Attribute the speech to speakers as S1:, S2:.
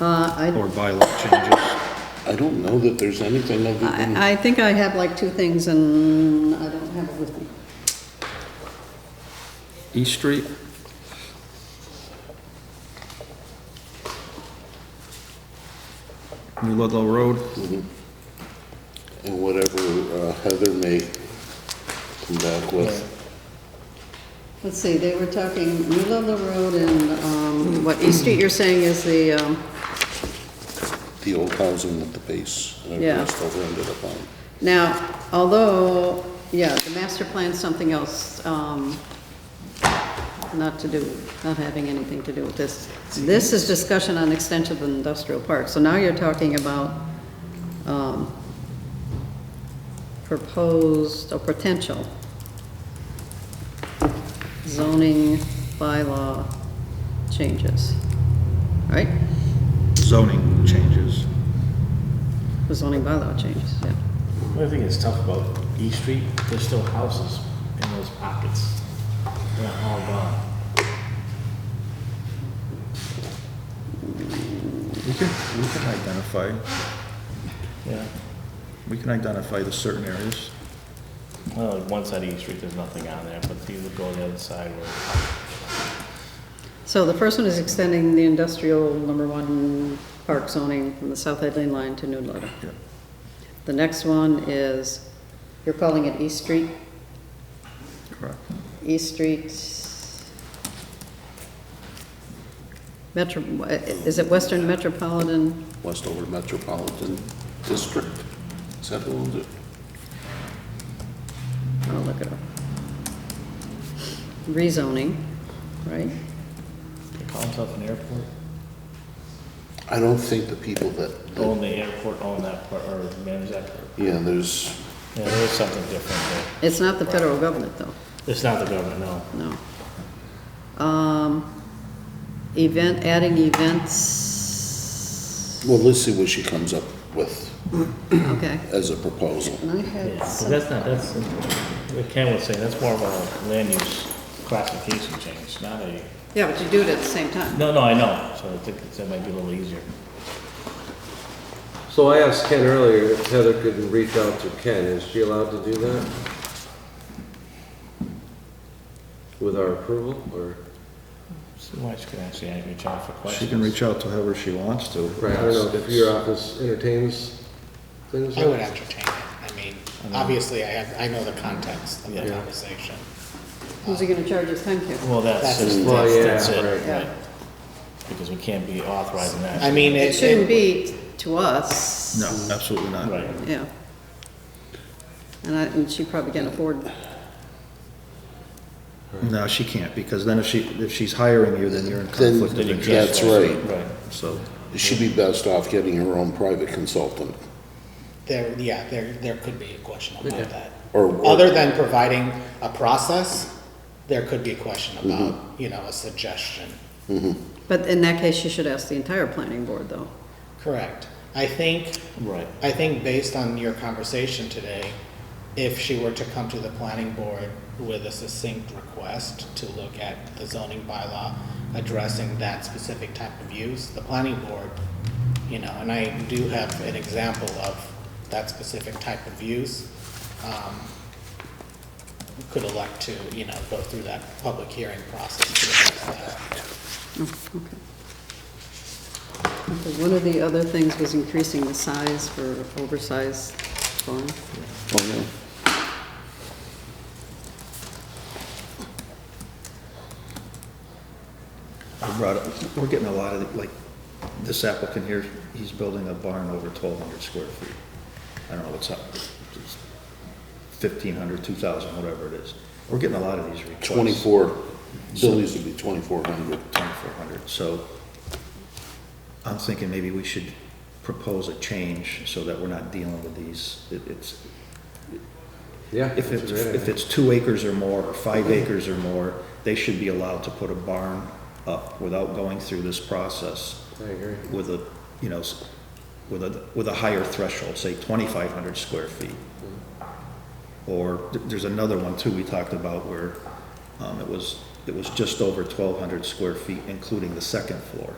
S1: Uh, I,
S2: or bylaw changes.
S3: I don't know that there's anything other than,
S1: I I think I have like two things and I don't have it with me.
S4: E
S2: East Street, New Ludlow Road,
S3: and whatever uh, Heather may come back with.
S1: Let's see, they were talking New Ludlow Road and, um, what East Street you're saying is the, um,
S3: The old housing with the base, uh, and
S1: Yeah.
S3: everything still ended up on.
S1: now, although, yeah, the master plan's something else, um, not to do, not having anything to do with this. This is discussion on extension of industrial park, so now you're talking about, um, proposed or potential zoning bylaw changes, right?
S2: zoning changes.
S1: The zoning bylaw changes, yeah.
S5: The only thing that's tough about E Street, there's still houses in those pockets. They're not all gone.
S2: We can, we can identify,
S5: Yeah.
S2: we can identify the certain areas.
S5: Well, like one side of E Street, there's nothing on there, but if you go on the other side where,
S1: So the first one is extending the industrial number one park zoning from the South Headland line to New Ludlow.
S2: Yeah.
S1: The next one is, you're calling it East Street,
S2: Correct.
S1: East Street. Metro, is it Western Metropolitan?
S3: Westover Metropolitan District. Is that the one that,
S1: I'll look it up. Rezoning, right?
S5: they call themselves an airport.
S3: I don't think the people that, that-
S5: Own the airport, own that part, or manage that part.
S3: yeah, there's,
S5: Yeah, there is something different
S1: It's not the federal government, though,
S5: there. It's not the government, no.
S1: no. Um, Event, adding events,
S3: well, let's see what she comes up with
S1: okay.
S3: as a proposal.
S1: And I
S5: Yeah,
S1: had
S5: but
S1: some,
S5: that's not, that's, what Ken was saying, that's more of a land use classification change, not a,
S1: yeah, but you do it at the same time.
S5: no, no, I know, so I think that might be a little easier.
S4: So I asked Ken earlier if Heather could reach out to Ken. Is she allowed to do that? With our approval, or?
S5: Somebody should actually have your job for questions.
S2: She can reach out to whoever she wants to.
S4: Right, I don't know if your office entertains things
S6: I
S4: like
S6: would entertain it. I mean, obviously, I have, I know the context of the
S5: Mm-hmm. Yeah.
S6: conversation.
S1: Who's he gonna charge his time to?
S5: Well, that's,
S6: That's-
S5: just-
S4: Well, yeah,
S5: that's, that's it,
S4: right.
S5: right, because we can't be authorizing that.
S6: I mean,
S1: It
S6: it,
S1: shouldn't
S6: it,
S1: be to us.
S2: No, absolutely not.
S5: Right,
S1: Yeah. And I, and she probably can't afford,
S2: No, she can't, because then if she, if she's hiring you, then you're in
S3: Then-
S2: conflict of
S5: Then you can't.
S2: interest,
S3: That's right.
S5: right.
S2: so.
S3: She'd be best off getting her own private consultant.
S6: there, yeah, there, there could be a question about that.
S3: Or- or-
S6: Other than providing a process, there could be a question about, you know, a suggestion.
S1: but in that case, she should ask the entire planning board, though.
S6: Correct. I think,
S5: Right.
S6: I think based on your conversation today, if she were to come to the planning board with a succinct request to look at the zoning bylaw addressing that specific type of use, the planning board, you know, and I do have an example of that specific type of use, um, could elect to, you know, go through that public hearing process to address that.
S1: Okay, One of the other things was increasing the size for oversized farm.
S3: Oh,
S2: I brought up, we're getting a lot of, like, this applicant here, he's building a barn over twelve hundred square feet. I don't know what's up, fifteen hundred, two thousand, whatever it is. We're getting a lot of these requests.
S3: 24, Billy's would be 2,400.
S2: Twenty-four hundred, so I'm thinking maybe we should propose a change so that we're not dealing with these. It- It's,
S4: Yeah.
S2: If
S4: that's
S2: it's,
S4: a great
S2: if
S4: idea.
S2: it's two acres or more, or five acres or more, they should be allowed to put a barn up without going through this process.
S4: I agree.
S2: With a, you know, s- with a, with a higher threshold, say twenty-five hundred square feet. Or, th- there's another one too we talked about where, um, it was, it was just over twelve hundred square feet, including the second floor.